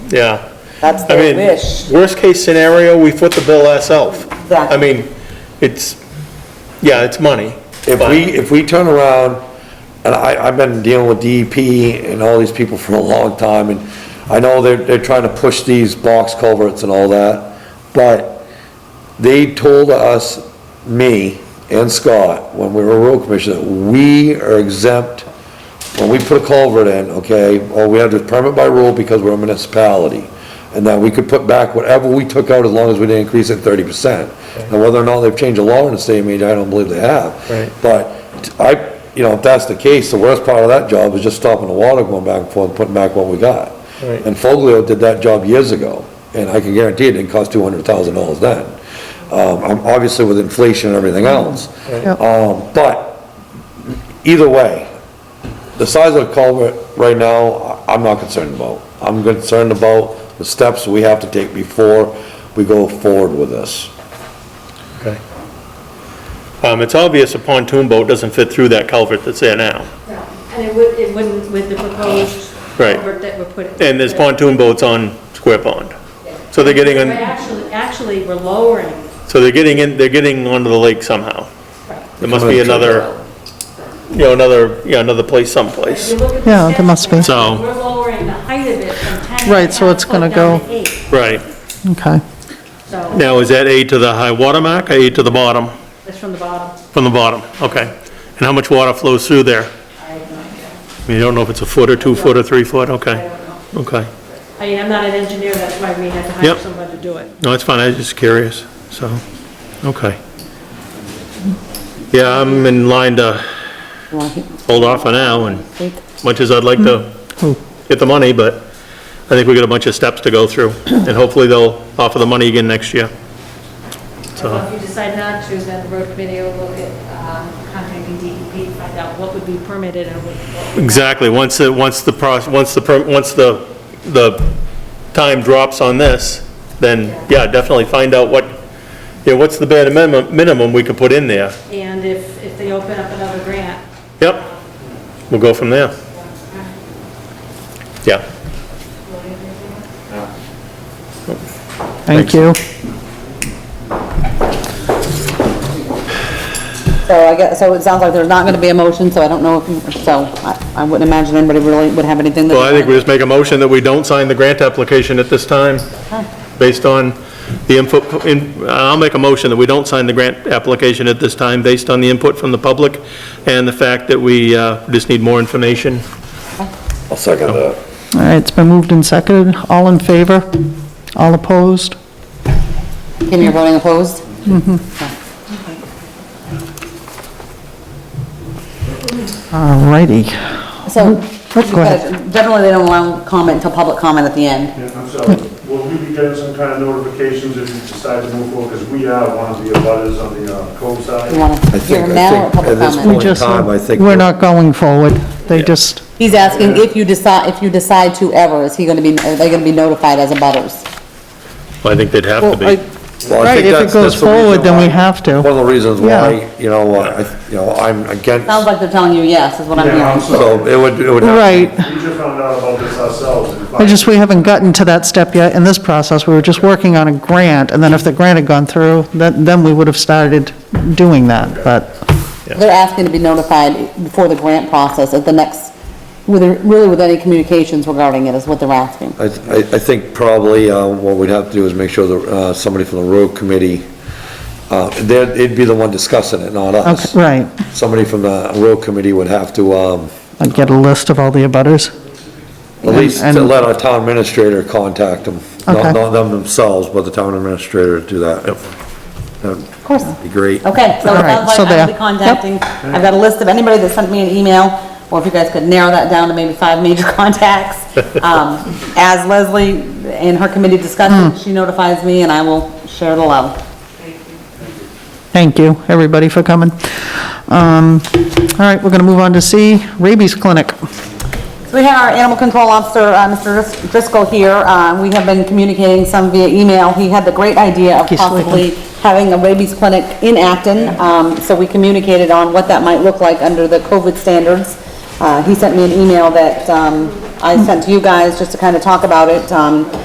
yeah. That's I their mean, wish. worst-case scenario, we foot the bill ourselves. I Exactly. mean, it's, yeah, it's money. If but- we, if we turn around, and I, I've been dealing with DEP and all these people for a long time, and I know they're, they're trying to push these box culverts and all that, but they told us, me and Scott, when we were road commissioner, that we are exempt, when we put a culvert in, okay, or we had to permit by rule because we're a municipality, and that we could put back whatever we took out as long as we didn't increase it thirty percent. And whether or not they've changed the law in the state of Maine, I don't believe they have. Right. But I, you know, if that's the case, the worst part of that job is just stopping the water going back and forth and putting back what we got. Right. And Foglio did that job years ago, and I can guarantee it didn't cost two hundred thousand dollars then. Um, I'm- obviously with inflation and everything else. Um, but, either way, the size of the culvert right now, I- I'm not concerned about. I'm concerned about the steps we have to take before we go forward with this. Okay. Um, it's obvious a pontoon boat doesn't fit through that culvert that's there now. Yeah, And it would, it wouldn't with the proposed Right. culvert that we're putting. And there's pontoon boats on Square Pond. So they're getting, But on. Actually, actually, we're lowering. so they're getting in, they're getting onto the lake somehow. There must be another, you know, another, yeah, another place If someplace. you look at the Yeah, there steps must be. plan, So- We're lowering the height of it from 10. Right, so it's 10 foot gonna down go- to eight. Right. Okay. So, Now, is that A to the high water mark or A to the bottom? it's from the bottom. From the bottom, okay. And how much water flows through there? I have no idea. I mean, You don't know if it's a foot or two foot or three foot, okay, I don't know. okay. I mean, I'm not an engineer, that's why we had to Yep. hire someone to do it. No, it's fine, I was just curious, so, okay. Yeah, I'm in line to hold off for now, and as much as I'd like to get the money, but I think we got a bunch of steps to go through, and hopefully they'll offer the money again next year. So if you decide not to, then the road committee will look at um, contacting DEP, find out what would be permitted and what- what. would- Exactly, once, the once the, proc- once the, per- once the, the time drops on this, then, yeah, definitely find out what, yeah, what's the bare minimum, minimum we could put in there. And if, if they open up another grant, Yep, we'll go from there. Yeah, Thank you. So I guess, so it sounds like there's not gonna be a motion, so I don't know if, you- so I, I wouldn't imagine anybody really would have anything that. well, I think we just make a motion that we don't sign the grant application at this time, based on the input, in- I'll make a motion that we don't sign the grant application at this time, based on the input from the public and the fact that we uh, just need more information. I'll second that. All right, it's been moved and seconded. All in favor? All opposed? And you're voting opposed? All righty. So, go ahead. because generally they don't allow comment until public comment at the end. Yeah, I'm sorry, will we be getting some kind of notifications if you decide to move forward? Because we are one of the abutters on the uh, Cove You side. wanna I hear think- I now or think public at this We comment? point- just, time, I think we're we're- not going forward. They just, He's asking if you decide, if you decide to ever, is he gonna be, are they gonna be notified as a butters? I think they'd have to Well, I- be. Well, I Right, think if it that's- goes that's the reason forward, then we why- have to. One of the reasons Yeah. why, you know, I, you know, I'm against, Sounds like they're telling you yes, is what I'm Yeah, I'm hearing. so sorry. it would, it would. have- right. We just found out about this ourselves. and if I just, we haven't gotten to that step yet in this process. We were just working on a grant, and then if the grant had gone through, then, then we would have started doing that, but, They're asking to be notified before the grant process at the next, with, really with any communications regarding it is what they're asking. I, I I think probably uh, what we'd have to do is make sure that uh, somebody from the road committee, uh, they'd it'd be the one discussing it, not us. okay, right. Somebody from the road committee would have to um, I'd get a list of all the abutters. at least And- to let our town administrator contact them. Okay. Not not them themselves, but the town administrator to do that. Of course. Be great. Okay, so All it right, sounds like so I'll be there. contacting, I've got a list of anybody that sent me an email, or if you guys could narrow that down to maybe five major contacts. Um, As Leslie and her committee Hmm. discusses, she notifies me and I will share the love. Thank you, everybody, for coming. Um, All right, we're going to move on to C, rabies clinic. So we have our animal control officer, uh, Mr. Dris- Driscoll here. Uh, We have been communicating some via email. He had the great idea of He's sleeping. possibly having a rabies clinic in Acton. Um, So we communicated on what that might look like under the COVID standards. Uh, He sent me an email that um, I sent to you guys just to kind of talk about it. Um,